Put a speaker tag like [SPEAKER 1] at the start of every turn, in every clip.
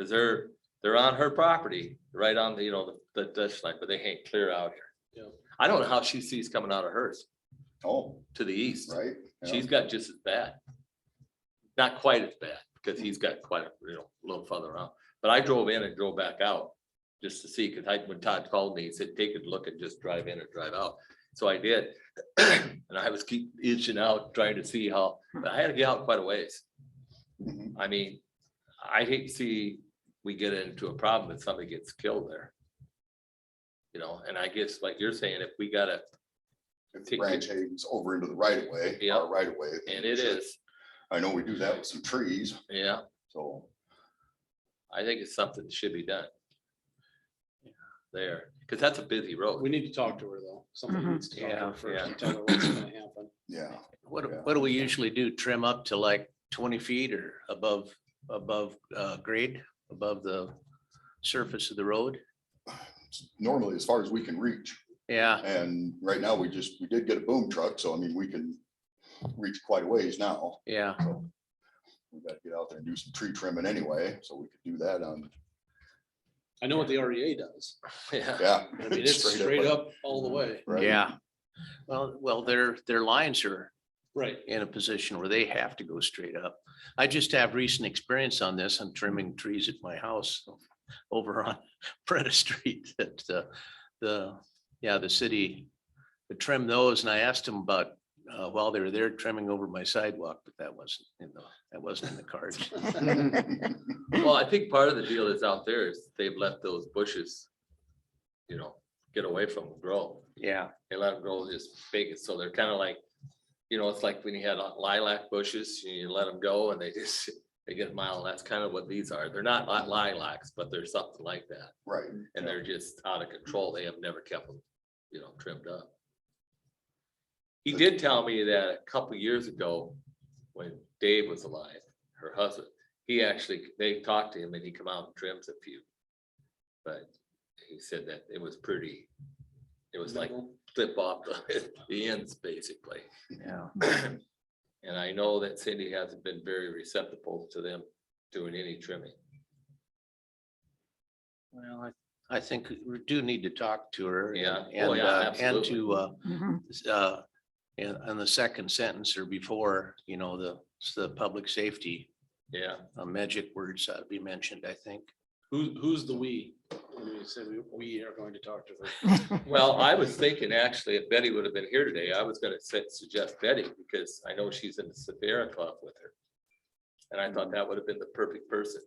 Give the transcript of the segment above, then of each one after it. [SPEAKER 1] Cause they're, they're on her property, right on the, you know, the, the ditch line, but they hang clear out here.
[SPEAKER 2] Yeah.
[SPEAKER 1] I don't know how she sees coming out of hers
[SPEAKER 3] Oh,
[SPEAKER 1] to the east.
[SPEAKER 3] right. yeah.
[SPEAKER 1] She's got just as bad. Not quite as bad, because he's got quite a, you know, a little further out, but I drove in and drove back out. Just to see, because I, when Todd called me, he said, take a look and just drive in or drive out, so I did. And I was keep itching out, trying to see how, but I had to get out quite a ways.
[SPEAKER 3] Mhm.
[SPEAKER 1] I mean, I hate to see we get into a problem that somebody gets killed there. You know, and I guess like you're saying, if we gotta,
[SPEAKER 3] If the
[SPEAKER 1] Take-
[SPEAKER 3] branch hangs over into the right of way,
[SPEAKER 1] Yeah.
[SPEAKER 3] our right of way. then
[SPEAKER 1] and it
[SPEAKER 3] sure.
[SPEAKER 1] is,
[SPEAKER 3] I know we do that with some trees,
[SPEAKER 1] yeah,
[SPEAKER 3] so.
[SPEAKER 1] I think it's something that should be done. There, because that's a busy road.
[SPEAKER 2] We need to talk to her though. Somebody
[SPEAKER 4] Mhm.
[SPEAKER 2] needs to talk to
[SPEAKER 5] Yeah,
[SPEAKER 2] her first
[SPEAKER 1] yeah.
[SPEAKER 2] and tell her what's gonna happen.
[SPEAKER 3] Yeah, Yeah.
[SPEAKER 5] What, what do we usually do? Trim up to like twenty feet or above, above uh, grade, above the surface of the road?
[SPEAKER 3] normally as far as we can reach.
[SPEAKER 5] Yeah,
[SPEAKER 3] And right now, we just, we did get a boom truck, so I mean, we can reach quite a ways now.
[SPEAKER 5] yeah.
[SPEAKER 3] So We gotta get out there and do some tree trimming anyway, so we could do that on,
[SPEAKER 2] I know what the REA does.
[SPEAKER 1] Yeah,
[SPEAKER 3] yeah.
[SPEAKER 2] I mean, it's straight up all the way.
[SPEAKER 3] right?
[SPEAKER 5] Yeah. Well, well, their, their lines are
[SPEAKER 2] Right.
[SPEAKER 5] in a position where they have to go straight up. I just have recent experience on this. I'm trimming trees at my house over on Preda Street that uh, the, yeah, the city would trim those and I asked them about uh, while they were there trimming over my sidewalk, but that wasn't, in the that wasn't in the cards.
[SPEAKER 1] well, I think part of the deal is out there is they've let those bushes, you know, get away from them, grow.
[SPEAKER 5] Yeah.
[SPEAKER 1] they let them grow just big, and so they're kind of like, you know, it's like when you had uh, lilac bushes, you let them go and they just, they get mild, that's kind of what these are, they're not li- lilacs, but they're something like that.
[SPEAKER 3] Right,
[SPEAKER 1] And they're just out of control, they have never kept them, you know, trimmed up. He did tell me that a couple years ago, when Dave was alive, her husband, he actually, they talked to him and he come out and trims a few. But he said that it was pretty, it was like clip off the, the ends, basically.
[SPEAKER 5] Yeah.
[SPEAKER 1] And I know that Cindy hasn't been very receptive to them doing any trimming.
[SPEAKER 5] Well, I, I think we do need to talk to her. and-
[SPEAKER 1] Yeah. Oh,
[SPEAKER 5] And,
[SPEAKER 1] yeah,
[SPEAKER 5] uh, and
[SPEAKER 1] absolutely.
[SPEAKER 5] to, uh,
[SPEAKER 4] Mhm.
[SPEAKER 5] s- uh, and, and the second sentence or before, you know, the, s- the public safety,
[SPEAKER 1] Yeah,
[SPEAKER 5] uh, magic words ought to be mentioned, I think.
[SPEAKER 2] Who, who's the we? When we say we, we are going to talk to her.
[SPEAKER 1] well, I was thinking actually, if Betty would have been here today, I was gonna su- suggest Betty because I know she's in the Sierra Club with her. And I thought that would have been the perfect person,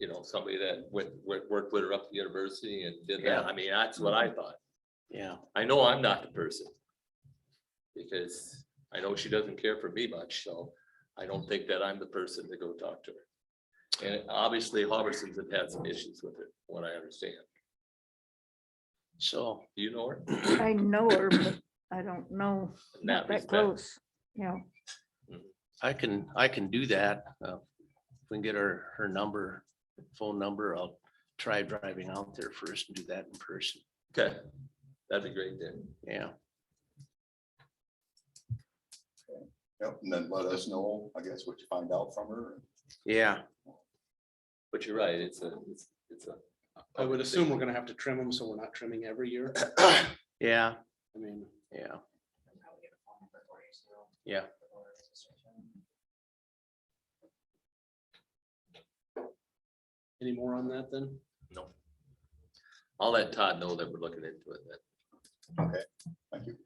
[SPEAKER 1] you know, somebody that went, went, worked with her up at the university and did
[SPEAKER 5] Yeah.
[SPEAKER 1] that. I mean, that's what
[SPEAKER 4] Mm-hmm.
[SPEAKER 1] I thought.
[SPEAKER 5] Yeah.
[SPEAKER 1] I know I'm not the person. Because I know she doesn't care for me much, so I don't think that I'm the person to go talk to her. And obviously Hobberson's have had some issues with it, what I understand.
[SPEAKER 5] So,
[SPEAKER 1] Do you know her?
[SPEAKER 4] I know her, but I don't know,
[SPEAKER 1] In
[SPEAKER 4] not that
[SPEAKER 1] respect?
[SPEAKER 4] close, you know.
[SPEAKER 5] I can, I can do that. uh, If we can get her, her number, phone number, I'll try driving out there first and do that in person.
[SPEAKER 1] Okay, that'd be great then.
[SPEAKER 5] Yeah.
[SPEAKER 3] Yep, and then let us know, I guess, what you find out from her.
[SPEAKER 5] Yeah.
[SPEAKER 1] But you're right, it's a, it's, it's a.
[SPEAKER 2] I would assume we're gonna have to trim them, so we're not trimming every year. I
[SPEAKER 5] Yeah.
[SPEAKER 2] mean,
[SPEAKER 5] Yeah. Yeah.
[SPEAKER 2] any more on that then?
[SPEAKER 1] No. I'll let Todd know that we're looking into it then.
[SPEAKER 3] Thank you.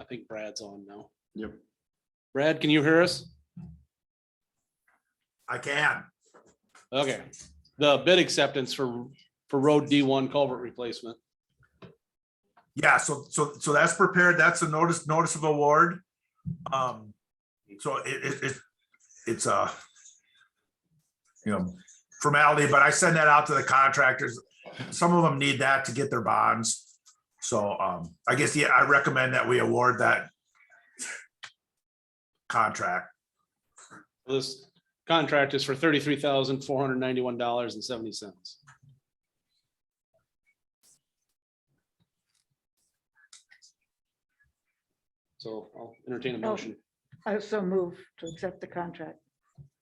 [SPEAKER 2] I think Brad's on now.
[SPEAKER 3] Yep.
[SPEAKER 2] Brad, can you hear us?
[SPEAKER 6] I can.
[SPEAKER 2] Okay, the bid acceptance for, for road D one culvert replacement.
[SPEAKER 6] Yeah, so, so, so that's prepared. That's a notice, notice of award. Um, so it, it, it, it's a, you know, formality, but I send that out to the contractors. Some of them need that to get their bonds. So, um, I guess, yeah, I recommend that we award that contract.
[SPEAKER 2] This contract is for thirty-three thousand, four hundred ninety-one dollars and seventy cents. So I'll entertain a
[SPEAKER 4] Oh.
[SPEAKER 2] motion.
[SPEAKER 4] I also move to accept the contract.